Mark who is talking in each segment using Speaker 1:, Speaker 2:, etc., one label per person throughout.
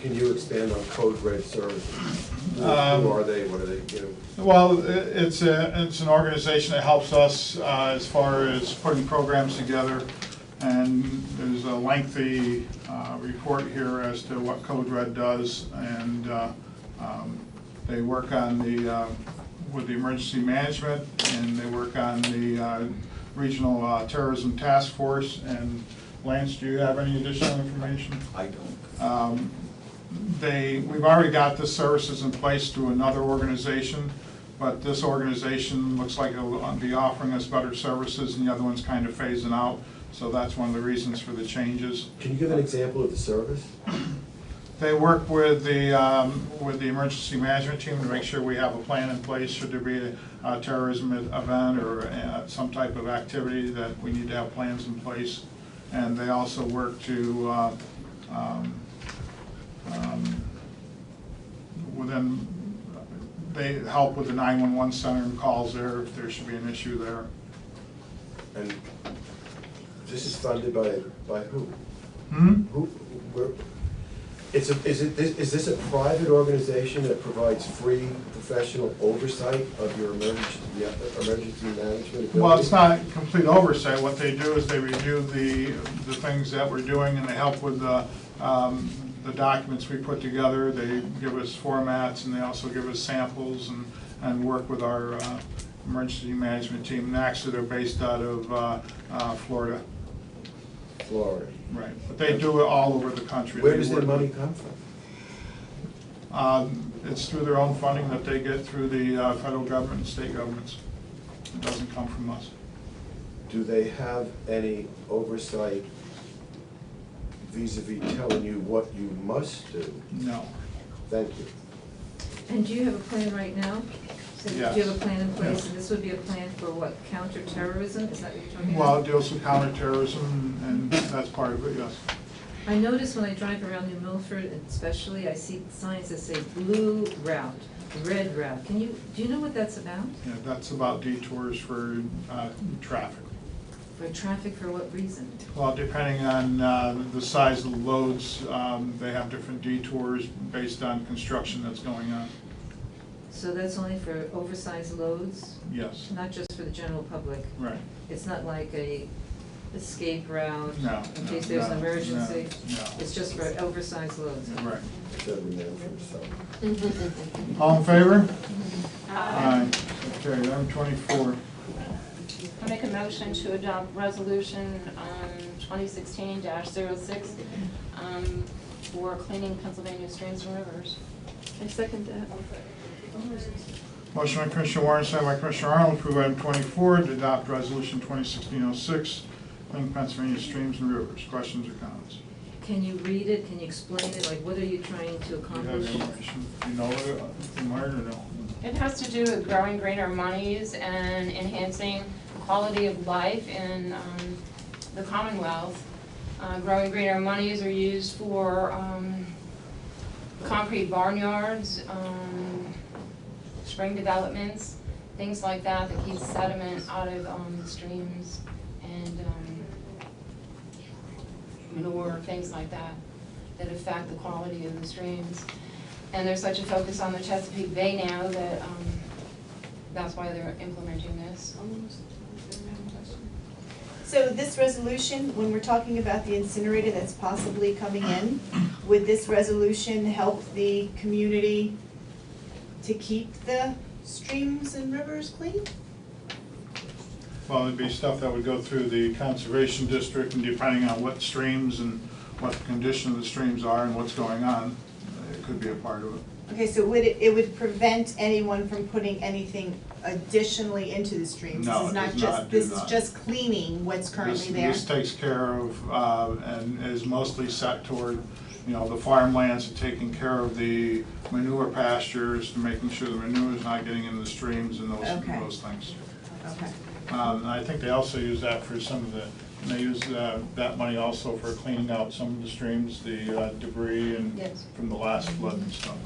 Speaker 1: Can you expand on Code Red Services? Who
Speaker 2: Um,
Speaker 1: who are they, what are they, you know?
Speaker 2: Well, i- it's a, it's an organization that helps us uh, as far as putting programs together. And there's a lengthy uh, report here as to what Code Red does. And uh, um, they work on the, uh, with the emergency management, and they work on the uh, regional uh, terrorism task force. And Lance, do you have any additional information?
Speaker 3: I don't.
Speaker 2: Um, They, we've already got the services in place to another organization, but this organization looks like it'll uh, be offering us better services, and the other one's kind of phasing out, so that's one of the reasons for the changes.
Speaker 1: Can you give an example of the service?
Speaker 2: They work with the, um, with the emergency management team to make sure we have a plan in place should there be a terrorism e-, event or uh, some type of activity that we need to have plans in place. And they also work to, uh, um, um, within, they help with the 911 center and calls there if there should be an issue there.
Speaker 1: And this is funded by, by who?
Speaker 2: Hmm?
Speaker 1: Who, where, it's a, is it, this- is this a private organization that provides free professional oversight of your emergency, yeah, emergency management? ability?
Speaker 2: Well, it's not complete oversight. What they do is they review the, the things that we're doing and they help with the, um, the documents we put together. They give us formats and they also give us samples and, and work with our, uh, emergency management team. And actually, they're based out of, uh, uh, Florida.
Speaker 1: Florida.
Speaker 2: Right. But they do it all over the country.
Speaker 1: Where
Speaker 2: They
Speaker 1: does their
Speaker 2: work-
Speaker 1: money come from?
Speaker 2: Um, it's through their own funding that they get through the, uh, federal government and state governments. It doesn't come from us.
Speaker 1: Do they have any oversight vis-à-vis telling you what you must do?
Speaker 2: No.
Speaker 1: Thank you.
Speaker 4: And do you have a plan right now? So Do you
Speaker 2: Yes.
Speaker 4: have a plan in place,
Speaker 2: Yes.
Speaker 4: and this would be a plan for what, counterterrorism, is that what you're talking
Speaker 2: Well, it
Speaker 4: about?
Speaker 2: deals with counterterrorism, and that's part of it, yes.
Speaker 4: I notice when I drive around New Milford especially, I see signs that say blue route, red route, can you, do you know what that's about?
Speaker 2: Yeah, that's about detours for uh, traffic.
Speaker 4: For traffic, for what reason?
Speaker 2: Well, depending on uh, the size of the loads, um, they have different detours based on construction that's going on,
Speaker 4: So that's only for oversized loads,
Speaker 2: yes.
Speaker 4: not just for the general public?
Speaker 2: Right.
Speaker 4: It's not like a escape route?
Speaker 2: No,
Speaker 4: In
Speaker 2: no,
Speaker 4: case there's
Speaker 2: no,
Speaker 4: an
Speaker 2: no,
Speaker 4: emergency?
Speaker 2: no.
Speaker 4: It's just for oversized loads?
Speaker 2: Right.
Speaker 1: Every man for himself.
Speaker 2: All in favor? Aye. Okay, item twenty-four.
Speaker 5: I make a motion to adopt resolution um, twenty sixteen 6 um, for cleaning Pennsylvania streams and rivers.
Speaker 6: I second that.
Speaker 2: Motion by Commissioner Warren, second by Commissioner Arnold, approve item twenty-four, to adopt resolution twenty sixteen oh six, clean Pennsylvania streams and rivers. Questions or comments?
Speaker 4: Can you read it, can you explain it, like, what are you trying to
Speaker 2: Do you have
Speaker 4: accomplish?
Speaker 2: information? Do you know it from where or no?
Speaker 5: It has to do with growing greener monies and enhancing quality of life in um, the Commonwealth. Uh, Growing greener monies are used for um, concrete barnyards, um, spring developments, things like that, that keeps sediment out of um, the streams and um, manure, things like that, that affect the quality of the streams. And there's such a focus on the Chesapeake Bay now that, um, that's why they're implementing this.
Speaker 7: So this resolution, when we're talking about the incinerator that's possibly coming in, would this resolution help the community to keep the streams and rivers clean?
Speaker 2: Well, it'd be stuff that would go through the conservation district and depending on what streams and what the condition of the streams are and what's going on, it could be a part of it.
Speaker 7: Okay, so would it, it would prevent anyone from putting anything additionally into the streams?
Speaker 2: No, it does
Speaker 7: This is
Speaker 2: not
Speaker 7: just,
Speaker 2: do
Speaker 7: this is
Speaker 2: that.
Speaker 7: just cleaning what's
Speaker 2: This-
Speaker 7: currently there?
Speaker 2: This takes care of, uh, and is mostly set toward, you know, the farmlands and taking care of the manure pastures, making sure the manure is not getting into the streams and those,
Speaker 7: Okay.
Speaker 2: those things.
Speaker 7: Okay.
Speaker 2: Um, and I think they also use that for some of the, and they use uh, that money also for cleaning out some of the streams, the uh, debris and
Speaker 5: Yes.
Speaker 2: from the last flood and stuff.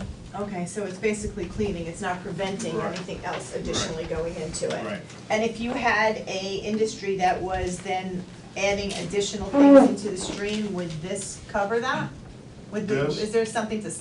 Speaker 7: Okay, so it's basically cleaning, it's not preventing
Speaker 2: Right.
Speaker 7: anything else additionally going into it.
Speaker 2: Right.
Speaker 7: And if you had a industry that was then adding additional things into the stream, would this cover that? Would the-
Speaker 2: Yes.
Speaker 7: Is there something to